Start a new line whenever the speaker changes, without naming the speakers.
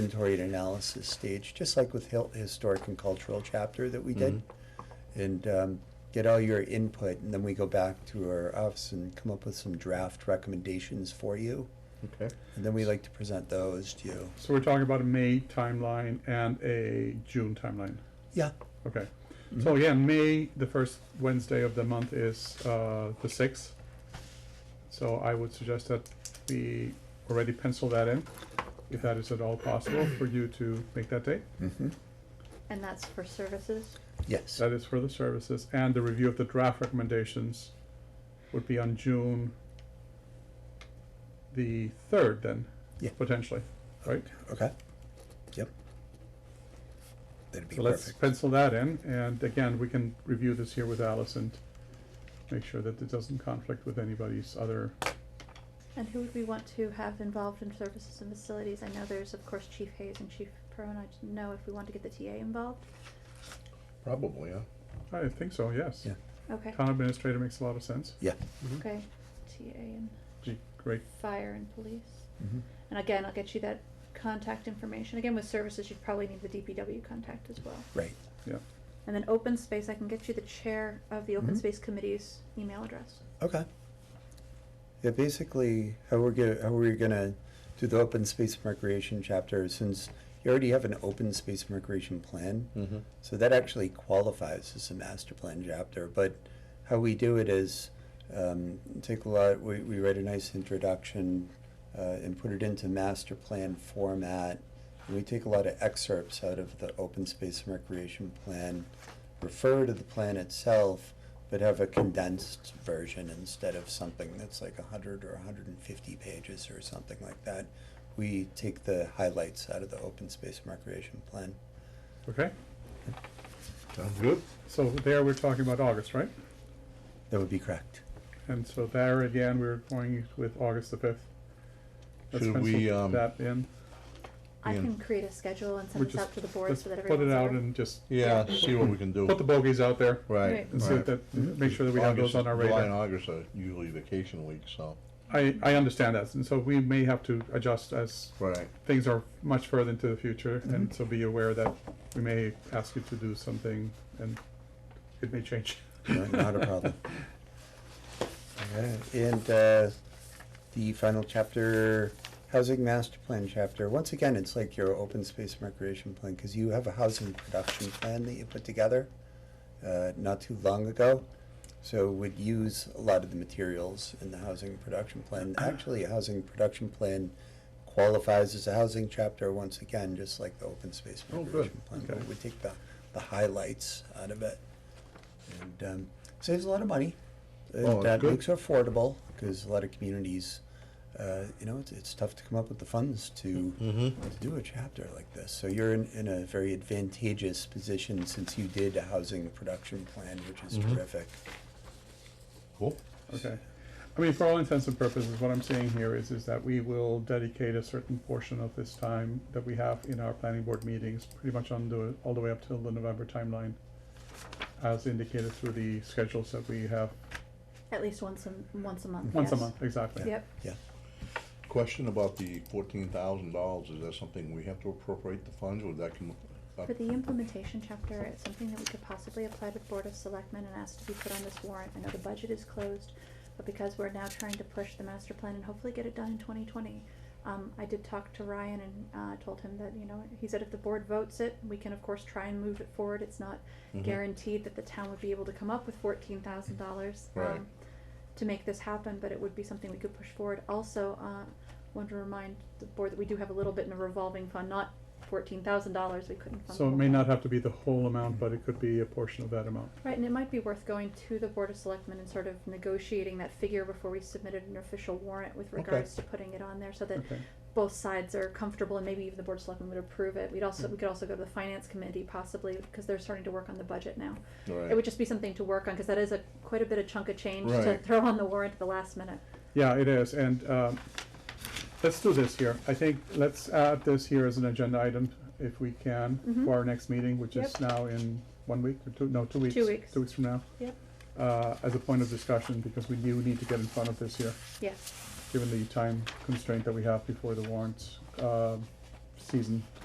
inventory and analysis stage, just like with Hill- historic and cultural chapter that we did. And um, get all your input, and then we go back to our office and come up with some draft recommendations for you.
Okay,
And then we like to present those to you.
so we're talking about a May timeline and a June timeline.
Yeah.
Okay, so yeah, May, the first Wednesday of the month is uh, the sixth. So I would suggest that we already pencil that in, if that is at all possible for you to make that date.
Mm-hmm.
And that's for services?
Yes.
That is for the services, and the review of the draft recommendations would be on June the third then,
Yeah.
potentially, right?
Okay. Yep. That'd be
So let's
perfect.
pencil that in, and again, we can review this here with Alice and make sure that it doesn't conflict with anybody's other,
And who would we want to have involved in services and facilities? I know there's, of course, Chief Hayes and Chief Perrin. I didn't know if we want to get the TA involved.
Probably, huh?
I think so, yes.
Yeah.
Okay,
Town administrator makes a lot of sense,
Yeah.
okay. TA and
Gee, great,
fire and police.
Mhm.
And again, I'll get you that contact information. Again, with services, you'd probably need the DPW contact as well.
Right.
yeah,
And then open space, I can get you the chair of the
Mm-hmm.
open
Mhm.
space committee's email address.
Okay. Yeah, basically, how we're gonna, how we're gonna do the open space and recreation chapter, since you already have an open space and recreation plan,
Mm-hmm.
so that actually qualifies as a master plan chapter, but how we do it is, um, take a lot, we, we write a nice introduction, uh, and put it into master plan format, and we take a lot of excerpts out of the open space and recreation plan, refer to the plan itself, but have a condensed version instead of something that's like a hundred or hundred and fifty pages or something like that. We take the highlights out of the open space and recreation plan.
okay?
Sounds good.
So there, we're talking about August, right?
That would be correct.
And so there again, we're going with August the fifth. Let's
Should we,
pencil
um,
That in.
I
Ian.
can create a schedule and
We're
send this
just-
out to the board
let's
so that
Put
everyone's
it
aware.
out and just
Yeah, see what we can do.
put the bogeys out there.
Right.
Right.
And see
right.
that, make sure that we have
August-
those on our
July and
radar.
August are usually vacation weeks, so.
I, I understand that, and so we may have to adjust as
Right.
things are much further into the future,
Mm-hmm.
and so be aware that we may ask you to do something, and it may change.
No, Not a problem. Okay, And uh, the final chapter, housing master plan chapter, once again, it's like your open space and recreation plan, because you have a housing production plan that you put together uh, not too long ago. So would use a lot of the materials in the housing production plan. Actually, a housing production plan qualifies as a housing chapter once again, just like the open space
Oh,
and
good.
recreation plan. But
Okay.
we take the, the highlights out of it. And um, saves a lot of money. And
Oh,
that
good.
makes it affordable because a lot of communities, uh, you know, it's, it's tough to come up with the funds to,
Mm-hmm.
to do a chapter like this. So you're in, in a very advantageous position since you did a housing production plan, which is
Mhm.
terrific.
Cool.
Okay. I mean, for all intents and purposes, what I'm saying here is, is that we will dedicate a certain portion of this time that we have in our planning board meetings, pretty much on the, all the way up till the November timeline, as indicated through the schedules that we have,
At least once a, once a month,
once a
Mm-hmm. yes.
month, exactly.
Yep,
Yeah.
Question about the fourteen thousand dollars, is that something we have to appropriate the funds, would that come up?
for the implementation chapter, it's something that we could possibly apply to the Board of Selectmen and ask to be put on this warrant. I know the budget is closed, but because we're now trying to push the master plan and hopefully get it done in twenty twenty, um, I did talk to Ryan and, uh, told him that, you know, he said if the board votes it, we can of course try and move it forward. It's not
Mm-hmm.
Mhm.
guaranteed that the town would be able to come up with fourteen thousand dollars. um,
Right.
to make this happen, but it would be something we could push forward. Also, uh, want to remind the board that we do have a little bit in a revolving fund, not fourteen thousand dollars, we couldn't fund.
So it
the
may
whole
not
fund.
have to be the whole amount, but it could be a portion of that amount.
Right, and it might be worth going to the Board of Selectmen and sort of negotiating that figure before we submitted an official warrant with
Okay.
regards to putting it on there, so that
Okay,
both sides are comfortable and maybe even the Board of Selectmen would approve it. We'd also, we could also go to the Finance Committee possibly, because they're starting to work on the budget now. It would
Right,
just be something to work on, because that is a, quite a bit of chunk of change to
Right.
throw on the warrant at the last minute.
yeah, it is, and, um, let's do this here. I think, let's add this here as an agenda item, if we can,
Mhm.
for our next meeting, which is
Yep.
now in one week, or two, no, two weeks.
weeks.
Two weeks from now,
Yep.
uh, as a point of discussion, because we do need to get in front of this here,
Yes.
given the time constraint that we have before the warrants, um, season.